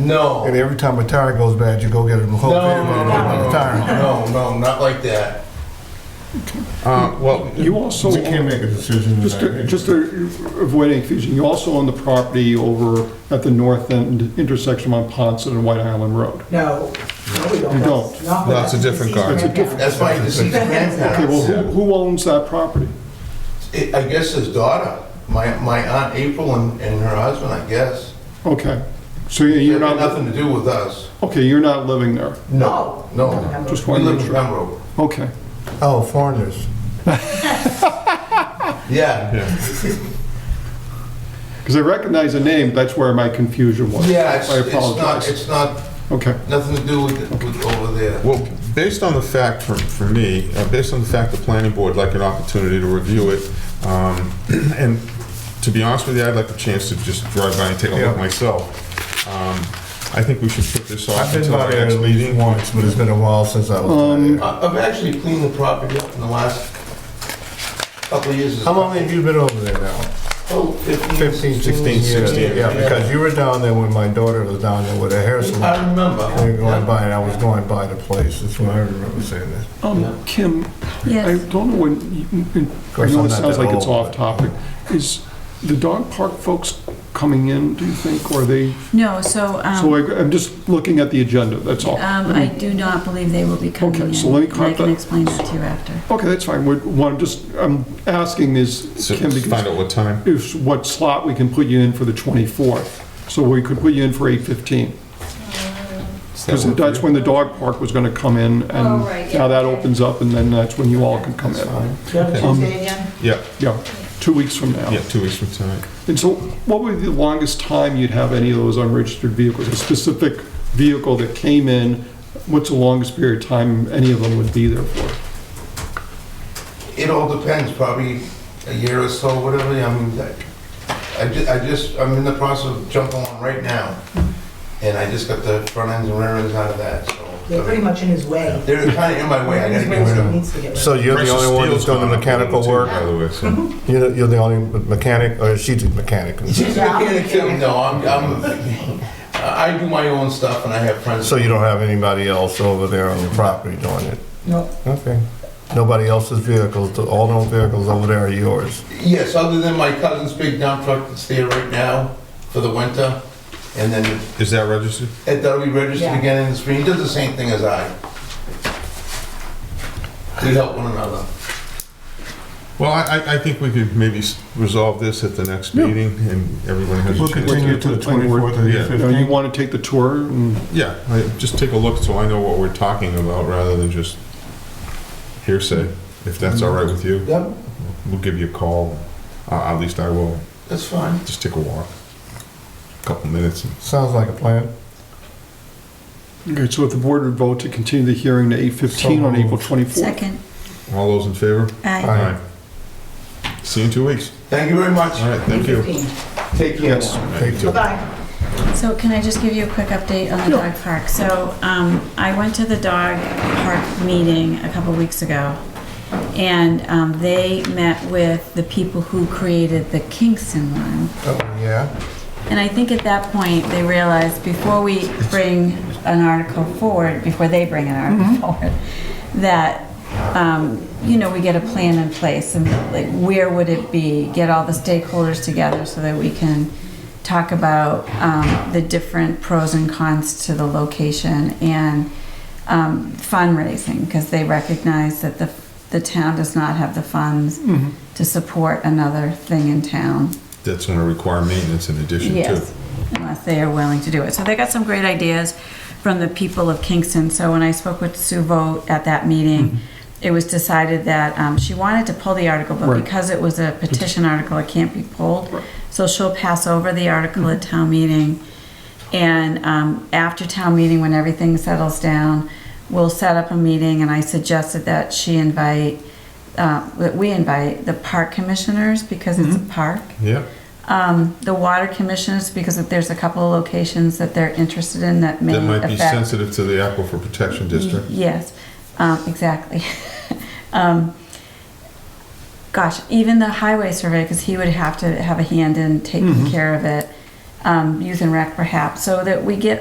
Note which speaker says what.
Speaker 1: No.
Speaker 2: And every time a tire goes bad, you go get a whole
Speaker 1: No,
Speaker 2: tire.
Speaker 1: no, no,
Speaker 2: another tire.
Speaker 1: no, no, no, not like that.
Speaker 3: Uh, Well,
Speaker 4: You also,
Speaker 2: We can't make a decision
Speaker 4: just to-
Speaker 2: tonight.
Speaker 4: just to avoid any confusion, you also own the property over at the north end intersection on Ponson and White Island Road.
Speaker 5: No, no, we don't.
Speaker 4: You don't.
Speaker 5: Not with
Speaker 3: That's a
Speaker 5: that
Speaker 3: different
Speaker 5: deceased
Speaker 3: car.
Speaker 4: That's a different-
Speaker 5: grandparent.
Speaker 1: That's my deceased
Speaker 4: Okay, well,
Speaker 1: grandparents.
Speaker 4: who who owns that property?
Speaker 1: It- I guess his daughter, my, my aunt April and, and her husband, I guess.
Speaker 4: Okay, so you- you're
Speaker 1: It had
Speaker 4: not,
Speaker 1: nothing to do with us.
Speaker 4: okay, you're not living there.
Speaker 5: No.
Speaker 1: No.
Speaker 4: Just
Speaker 1: We
Speaker 4: one
Speaker 1: live in
Speaker 4: minute.
Speaker 1: Pembroke.
Speaker 4: Okay,
Speaker 2: Oh, foreigners.
Speaker 1: Yeah.
Speaker 4: because I recognize the name, that's where my confusion was.
Speaker 1: Yeah, it's,
Speaker 4: I
Speaker 1: it's not,
Speaker 4: apologize.
Speaker 1: it's not,
Speaker 4: Okay,
Speaker 1: nothing to do with, with over there.
Speaker 3: well, based on the fact, for, for me, uh, based on the fact the planning board would like an opportunity to review it, um, and to be honest with you, I'd like a chance to just drive by and take a look
Speaker 2: Yeah.
Speaker 3: myself. Um, I think we should put this
Speaker 2: I've
Speaker 3: off
Speaker 2: been
Speaker 3: until
Speaker 2: by
Speaker 3: our
Speaker 2: there
Speaker 3: next
Speaker 2: at least
Speaker 3: meeting.
Speaker 2: once, but it's been a while since I was
Speaker 4: Um,
Speaker 2: there.
Speaker 1: I- Uh, I've actually cleaned the property up in the last couple of years.
Speaker 2: How long have you been over there now?
Speaker 1: Oh, 15,
Speaker 2: 15, 16 years.
Speaker 1: 16,
Speaker 2: Yeah, because you were down there when my daughter was down there with her hair salon.
Speaker 1: I remember.
Speaker 2: We were going by, and I was going by the place. That's when I remember saying that.
Speaker 1: Yeah.
Speaker 4: um, Kim, I
Speaker 6: Yes,
Speaker 4: don't know when, I
Speaker 2: course,
Speaker 4: know
Speaker 2: I'm
Speaker 4: it
Speaker 2: not
Speaker 4: sounds
Speaker 2: that
Speaker 4: like it's
Speaker 2: old,
Speaker 4: off
Speaker 2: but-
Speaker 4: topic. Is the dog park folks coming in, do you think, or are they?
Speaker 6: no, so,
Speaker 4: So
Speaker 6: um,
Speaker 4: I- I'm just looking at the agenda, that's all.
Speaker 6: um, I do not believe they will be coming in.
Speaker 4: Okay, so let me
Speaker 6: and
Speaker 4: clarify-
Speaker 6: I can explain that to you after.
Speaker 4: Okay, that's fine. We're- What I'm just, I'm asking is,
Speaker 3: So
Speaker 4: Kim,
Speaker 3: find
Speaker 4: because
Speaker 3: out what time.
Speaker 4: if, what slot we can put you in for the 24th. So we could put you in for 8:15.
Speaker 3: Does that
Speaker 4: Because
Speaker 3: work for
Speaker 4: that's
Speaker 3: you?
Speaker 4: when the dog park was going to come in,
Speaker 7: Oh,
Speaker 4: and
Speaker 7: right,
Speaker 4: now
Speaker 7: yeah,
Speaker 4: that
Speaker 7: okay.
Speaker 4: opens up, and then that's when you all can come in.
Speaker 5: Yeah,
Speaker 4: Um,
Speaker 3: Yeah,
Speaker 4: Yeah, two weeks from now.
Speaker 3: yeah, two weeks from tonight.
Speaker 4: And so what would be the longest time you'd have any of those unregistered vehicles? A specific vehicle that came in, what's the longest period of time any of them would be there for?
Speaker 1: It all depends, probably a year or so, whatever, I mean, I- I ju- I just, I'm in the process of jumping on right now, and I just got the front ends and rear ends out of that,
Speaker 5: They're pretty
Speaker 1: so.
Speaker 5: much in his way.
Speaker 1: They're kind of in my way, I gotta
Speaker 5: His
Speaker 1: get rid of
Speaker 5: way, he
Speaker 1: them.
Speaker 5: needs to get rid of
Speaker 2: So you're the only one that's doing the mechanical work?
Speaker 3: By the way, so.
Speaker 2: You're the- you're the only mechanic, or she's a mechanic?
Speaker 1: She's a mechanic too, no, I'm, I'm, I do my own stuff and I have friends.
Speaker 2: So you don't have anybody else over there on the property doing it?
Speaker 5: No.
Speaker 2: Okay. Nobody else's vehicles, all those vehicles over there are yours?
Speaker 1: Yes, other than my cousin's big dump truck that's there right now for the winter, and then
Speaker 3: Is that registered?
Speaker 1: it- that'll be registered
Speaker 5: Yeah.
Speaker 1: again in the spring, He does the same thing as I. We help one another.
Speaker 3: Well, I, I- I think we could maybe s- resolve this at the next meeting, and everyone has a chance.
Speaker 4: continue to the 24th
Speaker 3: the
Speaker 4: You know, Oh, you want to take the tour and
Speaker 3: Yeah, I- just take a look so I know what we're talking about, rather than just hearsay, if that's
Speaker 6: Mm-hmm.
Speaker 3: all right with you.
Speaker 1: Yep,
Speaker 3: We'll give you a call, Uh, at least I will,
Speaker 1: that's fine.
Speaker 3: just take a walk, a couple minutes. and-
Speaker 2: Sounds like a plan.
Speaker 4: Okay, so if the board would vote to continue the hearing to 8:15 on
Speaker 2: So
Speaker 4: April 24th.
Speaker 6: Second,
Speaker 3: All those in favor?
Speaker 6: I,
Speaker 2: Aye.
Speaker 3: See you in two weeks.
Speaker 1: Thank you very much.
Speaker 3: All right, thank you.
Speaker 1: Take care.
Speaker 4: Yes.
Speaker 3: All right, you too.
Speaker 5: Bye-bye.
Speaker 6: so can I just give you a quick update on the dog park? So, um, I went to the dog park meeting a couple weeks ago, and, um, they met with the people who created the Kingston one.
Speaker 2: Oh, yeah?
Speaker 6: And I think at that point, they realized before we bring an article forward, before they bring an article forward, that, um, you know, we get a plan in place and like, where would it be? Get all the stakeholders together so that we can talk about, um, the different pros and cons to the location and, um, fundraising, because they recognize that the, the town does not have the funds
Speaker 4: Mhm.
Speaker 6: to support another thing in town.
Speaker 3: That's gonna require maintenance in addition to.
Speaker 6: Yes, unless they are willing to do it. So they got some great ideas from the people of Kingston. So when I spoke with Sue Vogt at that meeting, it was decided that um, she wanted to pull the article, but
Speaker 4: Mm-hmm. Right.
Speaker 6: because it was a petition article, it can't be pulled.
Speaker 4: Right. Mm-hmm.
Speaker 6: So she'll pass over the article at town meeting. And um, after town meeting, when everything settles down, we'll set up a meeting, and I suggested that she invite, uh, that we invite the park commissioners, because it's a
Speaker 4: Mm-hmm.
Speaker 6: park
Speaker 3: Yeah,
Speaker 6: um, the water commissioners, because if there's a couple of locations that they're interested in that may
Speaker 3: that might be
Speaker 6: affect.
Speaker 3: sensitive to the Aquifer Protection District.
Speaker 6: Yes, um, exactly. Um, Gosh, even the highway survey, because he would have to have a hand in taking care of it, um, youth and rec perhaps, so that we get